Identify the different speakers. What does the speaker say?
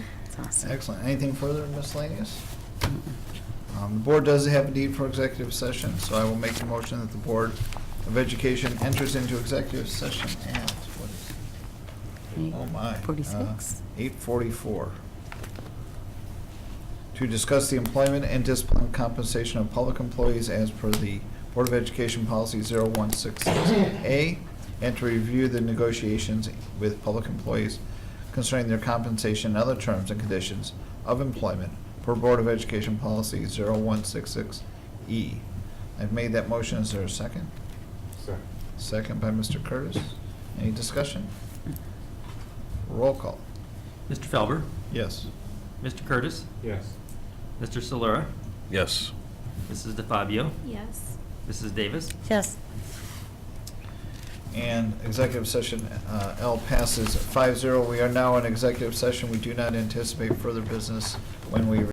Speaker 1: Awesome.
Speaker 2: Excellent. Anything further miscellaneous? Um, The board does have a need for executive session, so I will make the motion that the Board of Education enters into executive session at, what is, it? oh my. Uh.
Speaker 1: Forty-six.
Speaker 2: Eight forty-four. To discuss the employment and discipline compensation of public employees as per the Board of Education Policy 0166A, and to review the negotiations with public employees concerning their compensation and other terms and conditions of employment per Board of Education Policy 0166E. E. I've made that motion. Is there a second?
Speaker 3: Second.
Speaker 2: Second by Mr. Curtis. Any discussion? Roll call.
Speaker 4: Mr. Felber,
Speaker 2: Yes.
Speaker 4: Mr. Curtis,
Speaker 3: Yes.
Speaker 4: Mr. Solera,
Speaker 5: Yes.
Speaker 4: Mrs. DeFabio,
Speaker 6: Yes.
Speaker 4: Mrs. Davis,
Speaker 1: Yes.
Speaker 2: And executive session uh, L passes 5-0. We are now in executive session. We do not anticipate further business when we